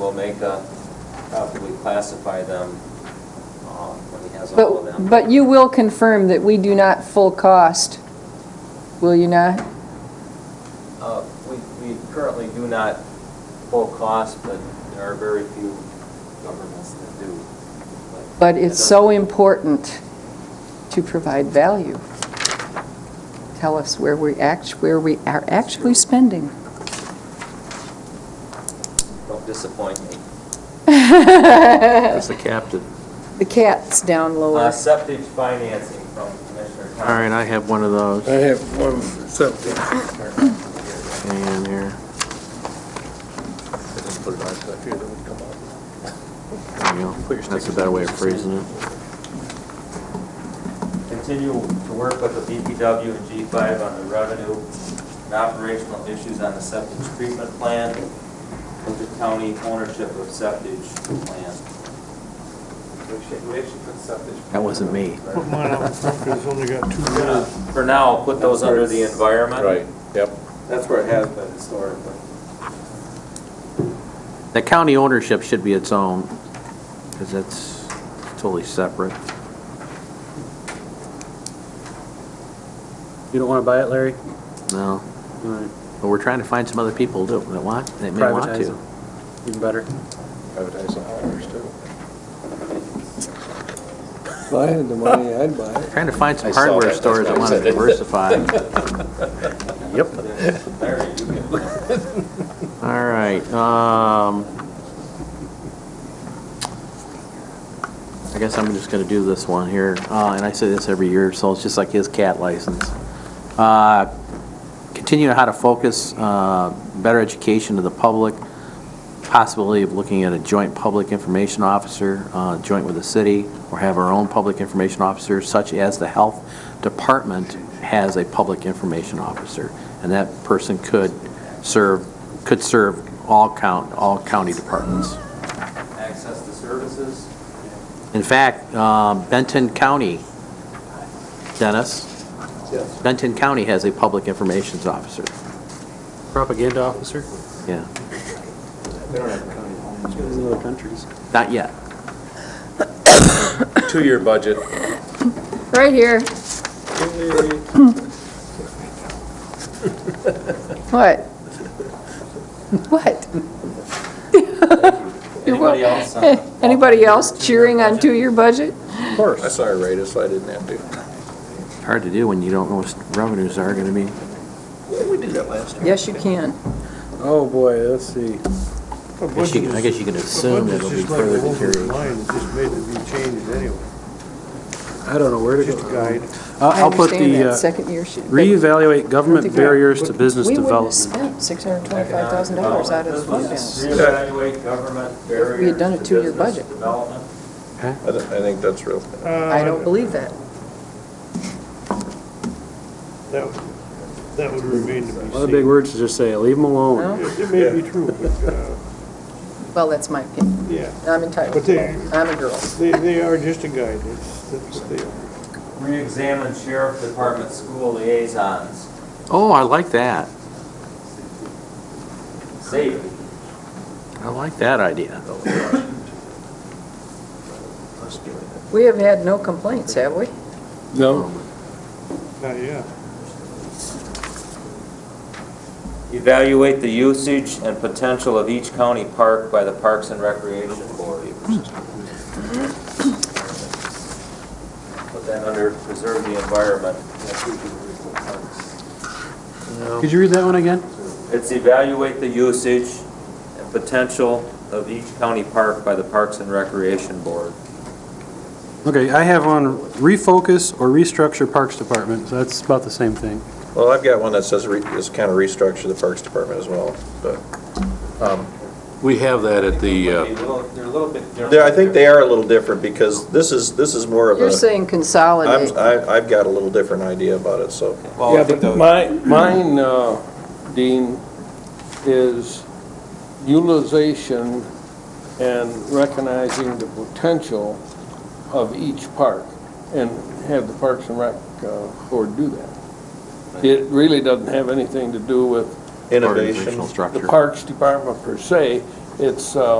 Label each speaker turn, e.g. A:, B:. A: We'll make a, probably classify them um, when he has all of them.
B: But, but you will confirm that we do not full cost, will you not?
A: Uh, We we currently do not full cost, but there are very few governments that do.
B: But it's so important to provide value. Tell us where we act, where we are actually spending.
A: Don't disappoint me.
C: As the captain.
B: The cat's down
A: Uh,
B: lower.
A: Septic financing from Commissioner Thomas.
C: All right, I have one of those
D: I have one, something.
C: in here. There you go. That's a better way of phrasing it.
A: Continue to work with the BPW and G5 on the revenue and operational issues on the septic treatment plan with the county ownership of septic plan.
C: That wasn't me.
E: Put mine out front, because it's only got two
A: Uh,
E: rows.
A: For now, put those under the environment.
D: Right, yep.
A: That's where it has been historically.
C: The county ownership should be its own, because that's totally separate.
F: You don't want to buy it, Larry?
C: No,
F: All right,
C: but we're trying to find some other people to, that want, that may want
F: Privatize
C: to.
F: it. even better.
D: Advertise on ours too. If I had the money, I'd buy it.
C: Trying to find some
D: I saw that,
C: hardware
D: that's
C: stores that
D: why I
C: want to
D: said it.
C: diversify.
A: There you go.
C: All right, um, I guess I'm just gonna do this one here, uh, and I say this every year, so it's just like his cat license. Uh, Continue how to focus, uh, better education to the public, possibility of looking at a joint public information officer, uh, joint with the city, or have our own public information officer, such as the health department has a public information officer. And that person could serve, could serve all count, all county departments.
A: Access to services.
C: In fact, um, Benton County, Dennis,
D: Yes.
C: Benton County has a public information officer.
F: Propaganda officer?
C: Yeah,
D: They don't have a county.
F: It's in other countries.
C: not yet.
D: Two-year budget.
B: Right here. What? What?
A: Anybody else? Uh, on-
B: Anybody else cheering on two-year budget?
D: Of course. I saw her rate, so I didn't have to.
C: Hard to do when you don't know what revenues are gonna be.
D: We did that last time.
B: Yes, you can.
D: Oh, boy, let's see.
E: A
C: guess
E: budget
C: you- I
E: is-
C: guess you can
E: a
C: assume
E: budget's
C: it'll be
E: just like a
C: further
E: whole
C: deterioration.
E: different Line, it's just made to be changed anyway.
G: I don't know where to
E: It's just a
G: go.
E: guide.
G: I'll-
B: I
G: I'll put
B: understand
G: the,
B: that,
G: uh,
B: second year should.
G: reevaluate government barriers to business
B: We wouldn't have
G: development.
B: spent six hundred and twenty-five thousand dollars out of the fund balance.
A: Reevaluate government barriers.
B: We had done a
A: to
B: two-year
A: business
B: budget.
A: Development.
D: I thi- I think that's real.
B: I
E: Uh,
B: don't believe that.
E: That, that would remain to be seen.
G: A lot of big words to just say, leave them alone.
B: No?
E: It may be true, but, uh,
B: Well, that's my opinion.
E: yeah,
B: I'm entitled.
E: But they-
B: I'm a girl.
E: they, they are just a guide, it's, that's what they are.
A: Reexamine sheriff department school liaisons.
C: Oh, I like that.
A: Safety.
C: I like that idea.
B: We have had no complaints, have we?
D: No.
E: Not yet.
A: Evaluate the usage and potential of each county park by the Parks and Recreation Board. Put that under preserve the environment.
G: Could you read that one again?
A: It's evaluate the usage and potential of each county park by the Parks and Recreation Board.
G: Okay, I have on refocus or restructure Parks Department, so that's about the same thing.
D: Well, I've got one that says, re- is kind of restructure the Parks Department as well, but. um,
H: We have that at the,
A: They're
H: uh,
A: a little they're a little bit different.
D: Yeah, I think they are a little different because this is, this is more of a.
B: You're saying
D: I'm,
B: consolidate.
D: I- I've got a little different idea about it, so.
A: Well, I
I: Yeah,
A: think
I: but
A: the-
I: my, mine, uh, Dean, is utilization and recognizing the potential of each park, and have the Parks and Rec uh, Board do that. It really doesn't have anything to do with
D: Innovation.
C: Organizational
I: the
C: structure.
I: Parks Department per se, it's, uh,